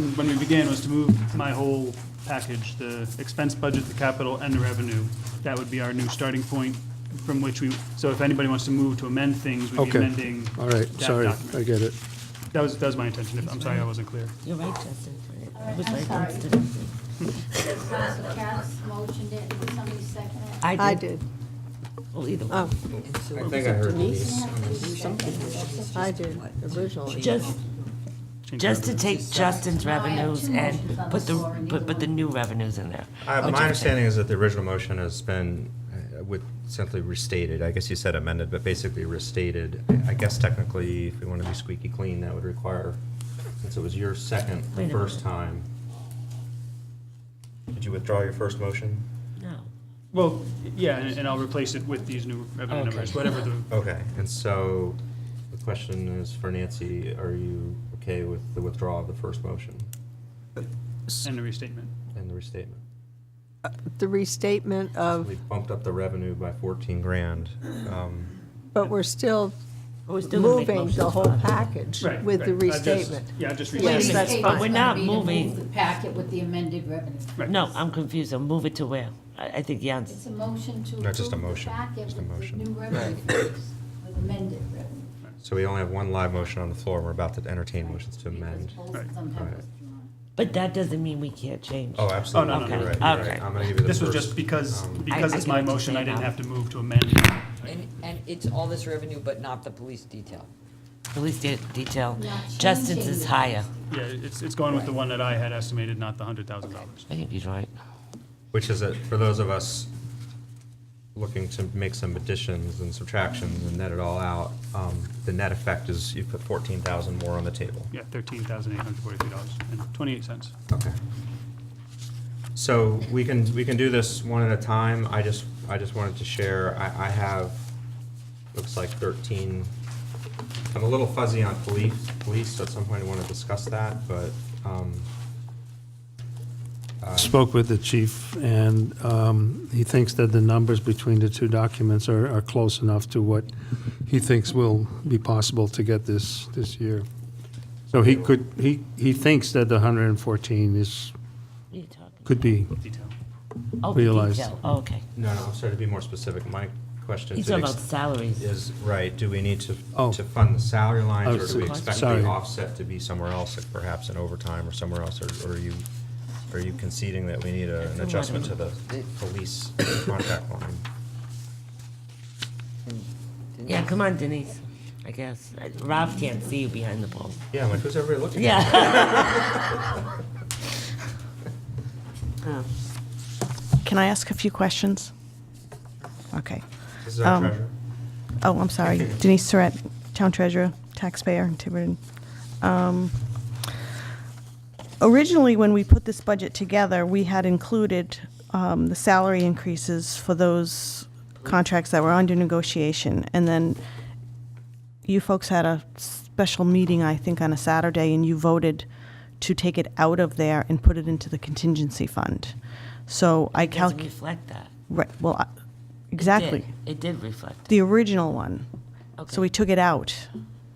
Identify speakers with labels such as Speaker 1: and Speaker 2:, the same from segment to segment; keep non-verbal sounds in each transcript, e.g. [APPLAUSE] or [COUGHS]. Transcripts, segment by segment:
Speaker 1: when we began was to move my whole package, the expense budget, the capital, and the revenue. That would be our new starting point from which we, so if anybody wants to move to amend things, we'd be
Speaker 2: Okay.
Speaker 1: amending
Speaker 2: All right,
Speaker 1: that
Speaker 2: sorry, I
Speaker 1: document.
Speaker 2: get it.
Speaker 1: That was, that was my intention. If- I'm sorry I wasn't clear.
Speaker 3: You're right, Justin. I was
Speaker 4: I'm
Speaker 3: right,
Speaker 4: sorry.
Speaker 3: Justin.
Speaker 4: Council Cass motioned it, and somebody seconded it.
Speaker 3: I did.
Speaker 5: I did.
Speaker 3: Well, either
Speaker 5: Oh,
Speaker 3: one.
Speaker 6: I think I heard Uh, Denise.
Speaker 5: I did originally.
Speaker 3: Just,
Speaker 1: Change
Speaker 3: just to
Speaker 1: revenue.
Speaker 3: take Justin's
Speaker 4: No, I have two
Speaker 3: revenues
Speaker 4: motions
Speaker 3: and
Speaker 4: on
Speaker 3: put
Speaker 4: the
Speaker 3: the,
Speaker 4: floor, and
Speaker 3: put,
Speaker 4: neither
Speaker 3: put the
Speaker 4: one-
Speaker 3: new revenues in there.
Speaker 6: Uh,
Speaker 3: Which
Speaker 6: My
Speaker 3: I-
Speaker 6: understanding is that the original motion has been, uh, with simply restated, I guess you said amended, but basically restated. I- I guess technically, if we want to be squeaky clean, that would require, since it was your second
Speaker 3: Wait
Speaker 6: the
Speaker 3: a
Speaker 6: first
Speaker 3: minute.
Speaker 6: time. Did you withdraw your first motion?
Speaker 3: No.
Speaker 1: Well, yeah, and and I'll replace it with these new revenue
Speaker 3: Okay.
Speaker 1: numbers, whatever the,
Speaker 6: Okay, and so the question is for Nancy, are you okay with the withdrawal of the first motion
Speaker 1: and the restatement.
Speaker 6: and the restatement?
Speaker 5: The restatement of,
Speaker 6: We bumped up the revenue by 14 grand. um,
Speaker 5: but we're still
Speaker 3: But Oh, we're still gonna make
Speaker 5: moving the
Speaker 3: motions
Speaker 5: whole
Speaker 3: about it.
Speaker 5: package
Speaker 1: Right,
Speaker 5: with the
Speaker 1: right. I just-
Speaker 5: restatement.
Speaker 1: Yeah, I just
Speaker 5: Yes,
Speaker 4: Wait a
Speaker 1: restated.
Speaker 4: minute,
Speaker 5: that's
Speaker 4: it's
Speaker 5: fine.
Speaker 4: gonna
Speaker 3: We're not
Speaker 4: be to move
Speaker 3: moving.
Speaker 4: The packet with the amended revenue.
Speaker 1: Right.
Speaker 3: No, I'm confused. I'm moving to where? I, I think Jan's
Speaker 4: It's a motion to
Speaker 6: No, just a
Speaker 4: approve the
Speaker 6: motion,
Speaker 4: packet
Speaker 6: just a
Speaker 4: with the
Speaker 6: motion.
Speaker 4: new revenue figures, with amended revenue.
Speaker 6: So we only have one live motion on the floor, and we're about to entertain motions to amend.
Speaker 4: Because both
Speaker 1: Right.
Speaker 4: of them have
Speaker 6: Right.
Speaker 4: withdrawn.
Speaker 3: But that doesn't mean we can't change.
Speaker 6: Oh, absolutely.
Speaker 1: Oh, no, no, no,
Speaker 6: You're right,
Speaker 3: no.
Speaker 6: you're right.
Speaker 3: Okay.
Speaker 6: I'm gonna give you the
Speaker 1: This was
Speaker 6: first.
Speaker 1: just because,
Speaker 6: Um,
Speaker 1: because
Speaker 3: I- I
Speaker 1: it's
Speaker 3: can
Speaker 1: my motion, I
Speaker 3: understand
Speaker 1: didn't
Speaker 3: now.
Speaker 1: have to move to amend.
Speaker 7: And, and it's all this revenue, but not the police detail.
Speaker 3: Police de- detail.
Speaker 4: Not
Speaker 3: Justin's
Speaker 4: changing
Speaker 3: is
Speaker 4: it.
Speaker 3: higher.
Speaker 1: Yeah, it's, it's going with the one that I had estimated, not the hundred thousand dollars.
Speaker 3: I think he's right.
Speaker 6: Which is, a- for those of us looking to make some additions and subtractions and net it all out, um, the net effect is you put 14,000 more on the table.
Speaker 1: Yeah, thirteen thousand eight hundred forty-three dollars and twenty-eight cents.
Speaker 6: Okay. So we can, we can do this one at a time. I just, I just wanted to share, I, I have, looks like 13. I'm a little fuzzy on police, police, so at some point I want to discuss that, but, um,
Speaker 2: Spoke with the chief, and um, he thinks that the numbers between the two documents are, are close enough to what he thinks will be possible to get this, this year. So he could, he, he thinks that the 114 is,
Speaker 3: What are you talking?
Speaker 2: could be,
Speaker 1: Detail.
Speaker 3: Oh, the
Speaker 2: realized.
Speaker 3: detail. Oh, Okay.
Speaker 6: No, no, I'm sorry to be more specific. My question
Speaker 3: He's
Speaker 6: to the
Speaker 3: talking about
Speaker 6: ex-
Speaker 3: salaries.
Speaker 6: is, right, do we need to,
Speaker 2: Oh.
Speaker 6: to fund the salary lines,
Speaker 2: Oh,
Speaker 6: or do
Speaker 2: so-
Speaker 6: we expect
Speaker 2: sorry.
Speaker 6: the offset to be somewhere else, like perhaps in overtime or somewhere else? Or or are you, are you conceding that we need a- an
Speaker 3: a lot
Speaker 6: adjustment
Speaker 3: of-
Speaker 6: to the police contract line?
Speaker 3: Yeah, come on, Denise. I guess. Uh, Rob can't see you behind the pole.
Speaker 6: Yeah, I'm like, who's everybody looking at?
Speaker 3: Yeah.
Speaker 8: Can I ask a few questions? Okay.
Speaker 6: This is our
Speaker 8: Um,
Speaker 6: treasurer.
Speaker 8: Oh, I'm sorry. Denise Surratt, Town Treasurer, taxpayer in Tiverton. Um, Originally, when we put this budget together, we had included um, the salary increases for those contracts that were under negotiation. And then you folks had a special meeting, I think, on a Saturday, and you voted to take it out of there and put it into the contingency fund. So I
Speaker 3: Doesn't
Speaker 8: calc,
Speaker 3: reflect that.
Speaker 8: right, well, I- exactly.
Speaker 3: Did. It did reflect.
Speaker 8: the original one.
Speaker 3: Okay.
Speaker 8: So we took it out.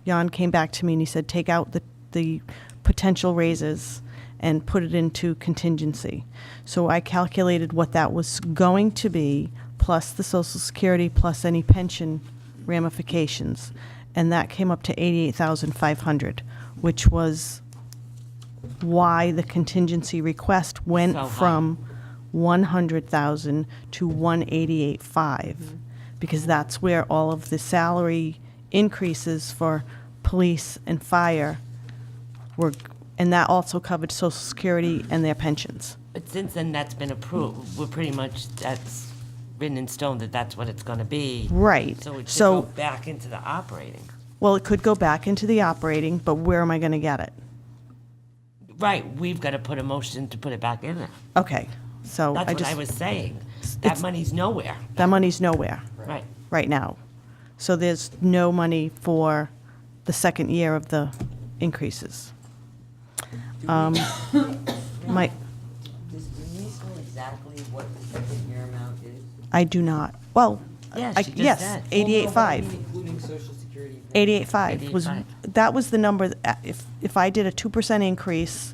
Speaker 8: Jan came back to me and he said, take out the, the potential raises and put it into contingency. So I calculated what that was going to be, plus the social security, plus any pension ramifications. And that came up to eighty-eight thousand five hundred, which was why the contingency request went
Speaker 3: So high.
Speaker 8: from one hundred thousand to one eighty-eight five, because that's where all of the salary increases for police and fire were, and that also covered social security and their pensions.
Speaker 3: But since then, that's been approved. We're pretty much, that's written in stone that that's what it's gonna be.
Speaker 8: Right.
Speaker 3: So it should go
Speaker 8: So,
Speaker 3: back into the operating.
Speaker 8: well, it could go back into the operating, but where am I gonna get it?
Speaker 3: Right, we've gotta put a motion to put it back in there.
Speaker 8: Okay, so
Speaker 3: That's
Speaker 8: Oh, I
Speaker 3: what I was
Speaker 8: just,
Speaker 3: saying. That
Speaker 8: it's-
Speaker 3: money's nowhere.
Speaker 8: that money's nowhere.
Speaker 3: Right.
Speaker 8: right now. So there's no money for the second year of the increases. Um, [COUGHS] My,
Speaker 7: Does Denise know exactly what the second year amount is?
Speaker 8: I do not, well,
Speaker 3: Yeah,
Speaker 8: I-
Speaker 3: she just
Speaker 8: yes,
Speaker 3: said.
Speaker 8: eighty-eight five.
Speaker 7: Including social security.
Speaker 8: Eighty-eight five was,
Speaker 3: 88.5.
Speaker 8: that was the number, that- if, if I did a two percent increase,